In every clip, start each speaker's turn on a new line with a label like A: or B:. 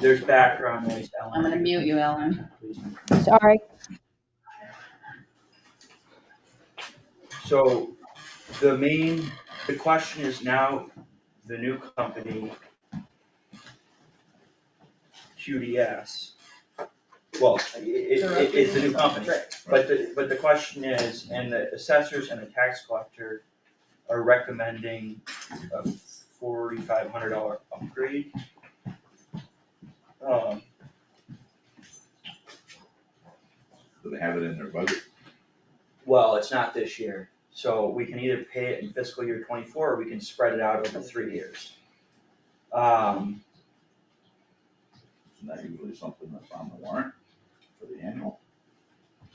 A: There's background noise, Ellen.
B: I'm gonna mute you, Ellen.
C: Sorry.
A: So the main, the question is now, the new company, QDS, well, i- i- it, it's the new company, but the, but the question is, and the assessors and the tax collector are recommending a forty-five hundred dollar upgrade. Um,
D: Do they have it in their budget?
A: well, it's not this year, so we can either pay it in fiscal year twenty-four, or we can spread it out over three years. Um,
D: Isn't that usually something that's on the warrant for the annual?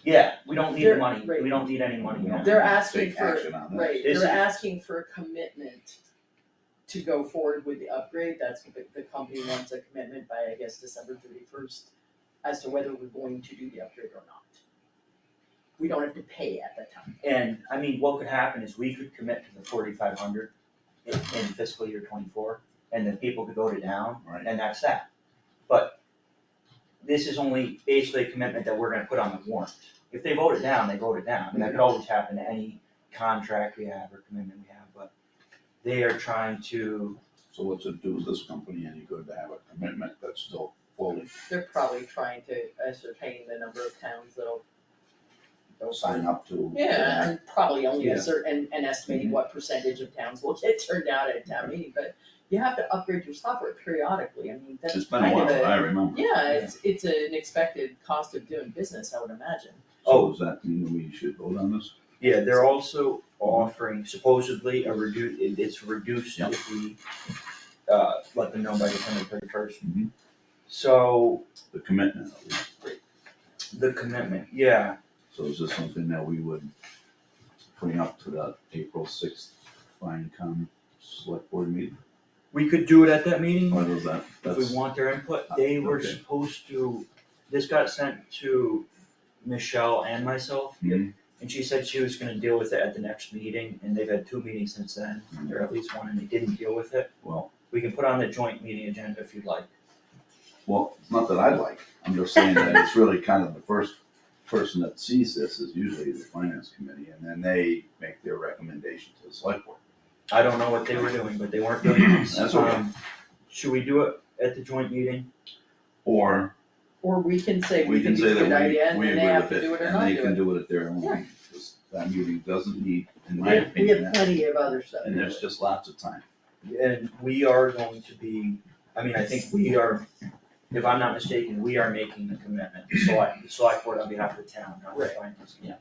A: yeah, we don't need the
E: They're-
A: money, we
E: right.
A: don't need any money
D: We
A: now.
D: don't
E: They're
D: have to
E: asking
D: take
E: for-
D: action on that.
E: Right,
A: Is
E: they're
A: it-
E: asking for a commitment to go forward with the upgrade, that's what the, the company wants a commitment by, I guess, December thirty first as to whether we're going to do the upgrade or not. We don't have to pay at that time.
A: And, I mean, what could happen is we could commit to the forty-five hundred in, in fiscal year twenty-four, and then people could vote it down,
D: Right.
A: and that's that. But this is only basically a commitment that we're gonna put on the warrant. If they vote it down, they vote it down, and that could always happen to any contract we have or commitment we have, but they are trying to,
D: So what's it do with this company any good to have a commitment that's still fully,
E: They're probably trying to ascertain the number of towns that'll
D: they'll sign up to?
E: Yeah, and probably only
A: Yeah.
E: a certain, and, and estimating what percentage of towns will get turned out at town meeting, but you have to upgrade your software periodically, I mean, that's
D: It's been a
E: kind of
D: while,
E: a-
D: I remember.
E: Yeah, it's, it's an expected cost of doing business, I would imagine.
D: So does that mean we should vote on this?
A: yeah, they're also offering supposedly a redu, it- it's reduced if we uh, let them know by December thirty-first.
D: Mhm.
A: So,
D: The commitment, at least.
A: The commitment, yeah,
D: so is this something that we would bring up to the April sixth FinCom select board meeting?
A: we could do it at that meeting,
D: Or does that,
A: if we
D: that's, uh,
A: want their input, they were
D: Okay.
A: supposed to, this got sent to Michelle and myself.
D: Mhm.
A: And she said she was gonna deal with it at the next meeting, and they've had two meetings since then, or at least one, and they didn't deal with it.
D: Mm-hmm. Well-
A: We can put on the joint meeting agenda if you'd like.
D: well, it's not that I like, I'm just saying that it's really kind of the first person that sees this is usually the finance committee, and then they make their recommendation to the select board.
A: I don't know what they were doing, but they weren't doing this.
D: That's okay.
A: Um, Should we do it at the joint meeting?
D: Or
E: Or we can say we
D: We
E: think
D: can
E: it's
D: say
E: a
D: that
E: good idea
D: we,
E: and
D: we
E: then they
D: agree with
E: have to do it
D: it,
E: or
D: and
E: not
D: they
E: do
D: can
E: it.
D: do it at their own meeting. This- That meeting doesn't need, in my
E: We
D: opinion,
E: have
D: that-
E: plenty of other stuff.
D: and there's just lots of time.
A: And we are going to be, I mean, I think we are, if I'm not mistaken, we are making the commitment, the select, the select board on behalf of the town, not the
E: Right.
A: finance. Yeah.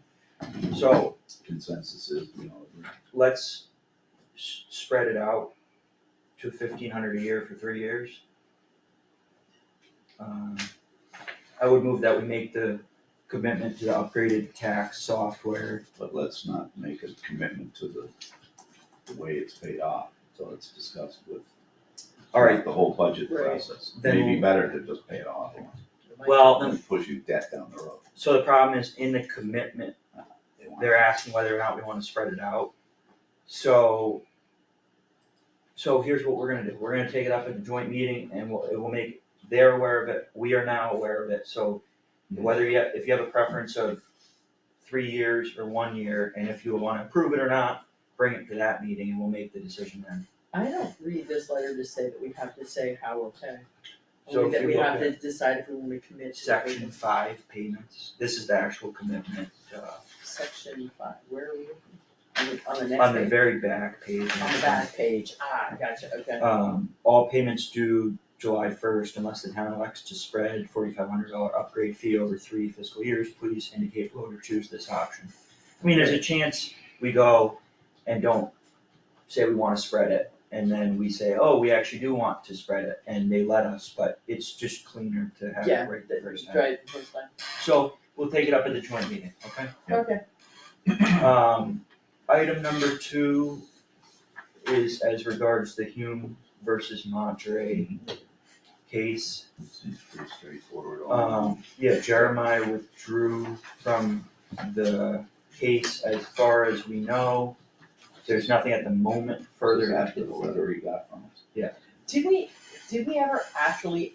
A: So
D: Consensus is, you know,
A: let's s- spread it out to fifteen hundred a year for three years. Um, I would move that we make the commitment to the upgraded tax software.
D: but let's not make a commitment to the, the way it's paid off, so it's discussed with.
A: All right,
D: The whole budget
E: Right.
D: process.
A: Then
D: Maybe
A: we'll-
D: better to just pay it off,
A: well, then-
D: and push you debt down the road.
A: so the problem is in the commitment
D: They want-
A: they're asking whether or not we wanna spread it out. So. So here's what we're gonna do, we're gonna take it up at the joint meeting and we'll, it will make, they're aware of it, we are now aware of it, so. Whether you, if you have a preference of three years or one year, and if you wanna approve it or not, bring it to that meeting and we'll make the decision then.
E: I don't read this letter to say that we have to say how we're paying.
A: So
E: Only
A: if
E: that
A: you
E: we
A: look
E: have to decide if we want to commit to. the rate
A: Section
E: of
A: five payments, this is the actual commitment, uh,
E: Section five, where are we? On the, on the next
A: on the
E: page,
A: very back page.
E: on the back page, ah, gotcha, okay.
A: Um, all payments due July first unless the town elects to spread forty-five hundred dollar upgrade fee over three fiscal years, please indicate below to choose this option. I mean, there's a chance we go and don't say we wanna spread it, and then we say, oh, we actually do want to spread it, and they let us, but it's just cleaner to have
E: Yeah.
A: it right the first time.
E: Right, first line.
A: So, we'll take it up at the joint meeting, okay?
D: Yeah.
E: okay.
A: Um, item number two is as regards the Hume versus Monterey case.
D: Seems pretty straightforward. all
A: Um, yeah, Jeremiah withdrew from the case as far as we know. There's nothing at the moment further.
D: After the letter he got from us.
E: Did we, did we ever actually